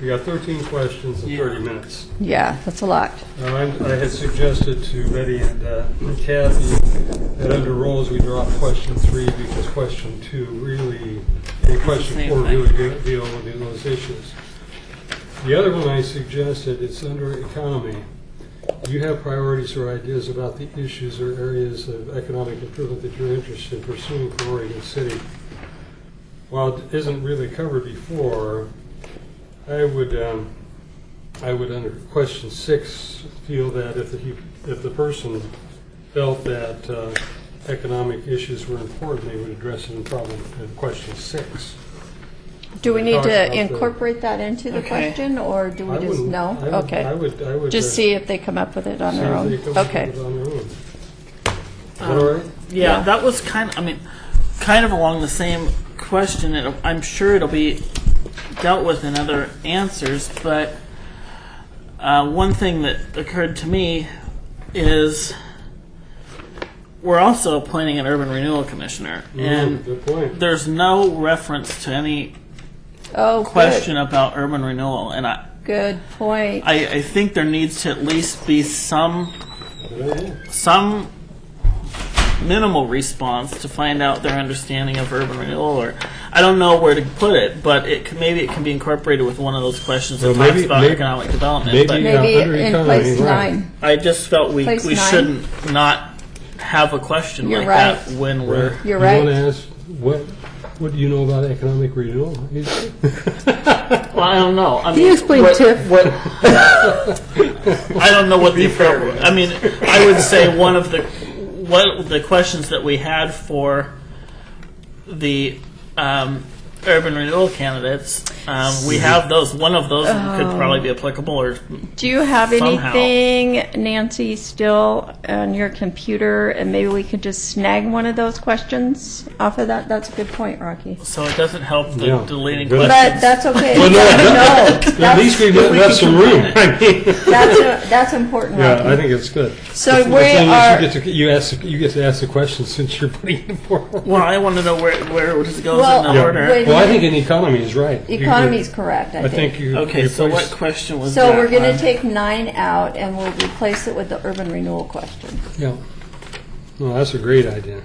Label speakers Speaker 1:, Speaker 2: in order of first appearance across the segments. Speaker 1: We got 13 questions in 30 minutes.
Speaker 2: Yeah, that's a lot.
Speaker 1: Now, I I had suggested to Betty and uh, Kathy that under rules, we drop question three because question two really, and question
Speaker 3: Same
Speaker 1: four
Speaker 3: thing.
Speaker 1: really de- deal with those issues. The other one I suggested, it's under economy. Do you have priorities or ideas about the issues or areas of economic improvement that you're interested in pursuing for Oregon City? While it isn't really covered before, I would, um, I would under question six feel that if the, if the person felt that uh, economic issues were important, they would address it in problem, in question six.
Speaker 2: Do we need
Speaker 1: Talked about
Speaker 2: to
Speaker 1: the-
Speaker 2: incorporate that into the
Speaker 3: Okay.
Speaker 2: question, or do
Speaker 1: I
Speaker 2: we just,
Speaker 1: wouldn't-
Speaker 2: no?
Speaker 1: I would- I
Speaker 2: Okay.
Speaker 1: would, I would. uh,
Speaker 2: Just see if they come up with it on their
Speaker 1: see
Speaker 2: own.
Speaker 1: if they come up
Speaker 2: Okay.
Speaker 1: with it on their own. Is that all right?
Speaker 3: Yeah,
Speaker 2: Yeah.
Speaker 3: that was kind of, I mean, kind of along the same question. It'll, I'm sure it'll be dealt with in other answers, but uh, one thing that occurred to me is we're also appointing an urban renewal commissioner,
Speaker 1: Mm,
Speaker 3: and
Speaker 1: Good point.
Speaker 3: there's no reference to any
Speaker 2: Oh,
Speaker 3: question
Speaker 2: good,
Speaker 3: about urban renewal, and I,
Speaker 2: good point.
Speaker 3: I, I think there needs to at least be some
Speaker 1: Good idea.
Speaker 3: some minimal response to find out their understanding of urban renewal or I don't know where to put it, but it can, maybe it can be incorporated with one of those questions that
Speaker 1: Well,
Speaker 3: talks
Speaker 1: maybe-
Speaker 3: about
Speaker 1: maybe-
Speaker 3: economic development.
Speaker 1: maybe-
Speaker 3: but
Speaker 1: Yeah,
Speaker 2: Maybe
Speaker 1: under
Speaker 2: in
Speaker 1: economy,
Speaker 2: place
Speaker 1: right.
Speaker 2: nine.
Speaker 3: I just felt we,
Speaker 2: Place
Speaker 3: we
Speaker 2: nine.
Speaker 3: shouldn't not have a question
Speaker 2: You're
Speaker 3: like that
Speaker 2: right.
Speaker 3: when we're
Speaker 2: You're
Speaker 1: You want to
Speaker 2: right.
Speaker 1: ask, what, what do you know about economic renewal? He's-
Speaker 3: well I don't know. I mean
Speaker 2: you explain
Speaker 3: what-
Speaker 2: TIF?
Speaker 3: what- I don't know what the appropriate I mean I would say one of the what the questions that we had for the um, urban renewal candidates. Um, we have those. One of those
Speaker 2: Oh.
Speaker 3: could probably be applicable, or
Speaker 2: Do you have
Speaker 3: Somehow.
Speaker 2: anything, Nancy, still on your computer, and maybe we could just snag one of those questions off of that? That's a good point, Rocky.
Speaker 3: so it doesn't help the
Speaker 1: Yeah.
Speaker 3: deleting
Speaker 1: But-
Speaker 3: questions.
Speaker 2: But that's okay.
Speaker 1: Well, no,
Speaker 2: No,
Speaker 1: At least we left left some room. I mean,
Speaker 2: That's, a- that's important,
Speaker 1: Yeah, I
Speaker 2: Rocky.
Speaker 1: think it's good.
Speaker 2: So
Speaker 1: The
Speaker 2: we
Speaker 1: thing is,
Speaker 2: are,
Speaker 1: You get to, you ask, you get to ask the question since you're putting it forward.
Speaker 3: Well, I want to know where where does it goes
Speaker 2: Well,
Speaker 3: in the
Speaker 2: Yeah.
Speaker 3: order.
Speaker 2: wait.
Speaker 1: Well, I think an economy is right. You-
Speaker 2: economy's correct,
Speaker 1: I
Speaker 2: I
Speaker 1: think
Speaker 2: think.
Speaker 1: you.
Speaker 3: Okay,
Speaker 1: you
Speaker 3: so what
Speaker 1: placed-
Speaker 3: question was
Speaker 2: So
Speaker 3: that?
Speaker 2: we're going to
Speaker 3: Um,
Speaker 2: take nine out, and we'll replace it with the urban renewal question.
Speaker 1: Yeah. No, that's a great idea.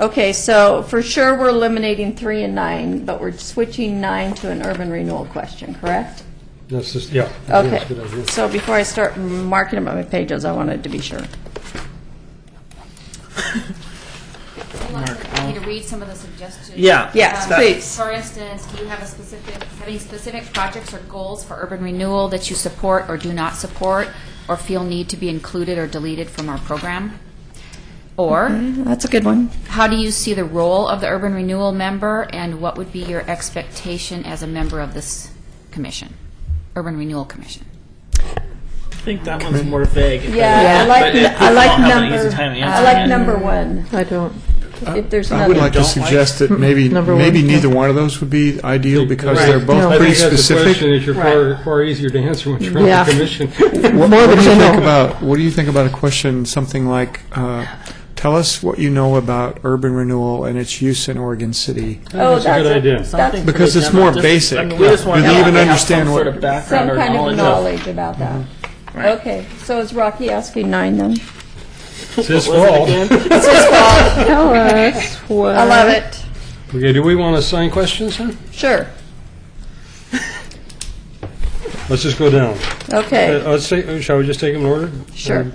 Speaker 2: Okay, so for sure, we're eliminating three and nine, but we're switching nine to an urban renewal question, correct?
Speaker 1: That's just, yeah. I think
Speaker 2: Okay,
Speaker 1: that's a good idea.
Speaker 2: so before I start marking up my pages, I wanted to be sure.
Speaker 4: You want me to read some of the suggestions?
Speaker 3: Yeah.
Speaker 2: Yes,
Speaker 4: Um,
Speaker 2: please.
Speaker 4: For instance, do you have a specific, having specific projects or goals for urban renewal that you support or do not support, or feel need to be included or deleted from our program? Or,
Speaker 2: That's a good one.
Speaker 4: how do you see the role of the urban renewal member, and what would be your expectation as a member of this commission, Urban Renewal Commission?
Speaker 3: I think that one's more vague.
Speaker 2: Yeah, I like,
Speaker 3: But it-
Speaker 2: I like
Speaker 3: people don't have an easy
Speaker 2: number,
Speaker 3: time
Speaker 2: I
Speaker 3: answering
Speaker 2: like
Speaker 3: it.
Speaker 2: number one,
Speaker 5: I don't.
Speaker 2: if there's
Speaker 6: I would
Speaker 2: another.
Speaker 6: like to
Speaker 3: don't like-
Speaker 6: suggest that maybe,
Speaker 5: Number
Speaker 6: maybe
Speaker 5: one, yeah.
Speaker 6: neither one of those would be ideal because
Speaker 1: Right.
Speaker 6: they're both
Speaker 1: I
Speaker 6: pretty
Speaker 1: think that's a question that
Speaker 6: specific.
Speaker 1: you're far, far easier to answer when you're on
Speaker 5: Yeah.
Speaker 1: the commission.
Speaker 6: What what do
Speaker 5: than
Speaker 6: you
Speaker 5: you
Speaker 6: think
Speaker 5: know.
Speaker 6: about, what do you think about a question, something like, uh, tell us what you know about urban renewal and its use in Oregon City?
Speaker 2: Oh,
Speaker 1: That's a good idea.
Speaker 2: That's
Speaker 6: Because
Speaker 3: pretty
Speaker 6: it's more
Speaker 3: general. Just- I
Speaker 6: basic.
Speaker 3: mean, we just
Speaker 6: Do
Speaker 3: want
Speaker 6: they
Speaker 3: to
Speaker 6: even
Speaker 3: have
Speaker 6: understand
Speaker 3: some
Speaker 6: what-
Speaker 3: sort of Mm-hmm. background
Speaker 2: some
Speaker 3: or
Speaker 2: kind of
Speaker 3: knowledge
Speaker 2: knowledge about that. Okay, so is Rocky asking nine then?
Speaker 1: It's his fault.
Speaker 5: Tell us what.
Speaker 2: I love it,
Speaker 1: Okay, do we want to assign questions then?
Speaker 2: sure,
Speaker 1: Let's just go down. Uh,
Speaker 2: okay,
Speaker 1: Let's say, shall we just take them in order?
Speaker 3: um,
Speaker 2: sure,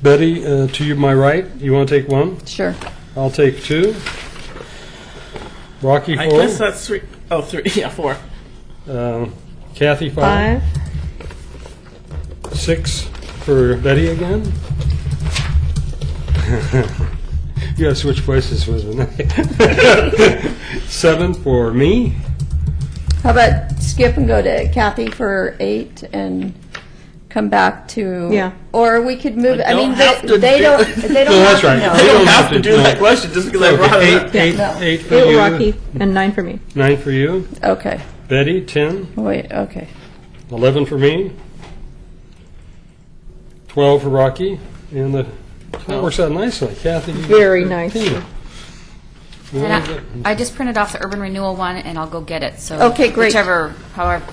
Speaker 1: Betty, uh, to you, my right, you want to take one?
Speaker 2: sure.
Speaker 1: I'll take two. Rocky
Speaker 3: I guess
Speaker 1: four.
Speaker 3: that's three oh three yeah, four.
Speaker 1: Um, Kathy five.
Speaker 5: Five.
Speaker 1: Six for Betty again. you gotta switch places with me. Seven for me.
Speaker 2: How about skip and go to Kathy for eight and come back to?
Speaker 5: Yeah.
Speaker 2: Or we could move, I
Speaker 3: don't
Speaker 2: mean,
Speaker 3: have
Speaker 2: they
Speaker 3: to
Speaker 2: they
Speaker 3: do-
Speaker 2: don't, they
Speaker 1: No,
Speaker 2: don't
Speaker 1: that's
Speaker 2: have to
Speaker 1: right.
Speaker 2: know.
Speaker 1: They
Speaker 3: don't have to do that question just because I brought it up.
Speaker 1: Eight, eight,
Speaker 2: No.
Speaker 1: eight for
Speaker 5: Eight
Speaker 1: you.
Speaker 5: Rocky and nine for me.
Speaker 1: Nine for you.
Speaker 2: Okay,
Speaker 1: Betty, ten.
Speaker 2: wait, okay.
Speaker 1: Eleven for me. Twelve for Rocky. And the, that works out nicely. Kathy. you-
Speaker 5: Very nice.
Speaker 1: Tina.
Speaker 4: And I I just printed off the urban renewal one, and I'll go get it, so.
Speaker 2: Okay, great.
Speaker 4: Whichever, however,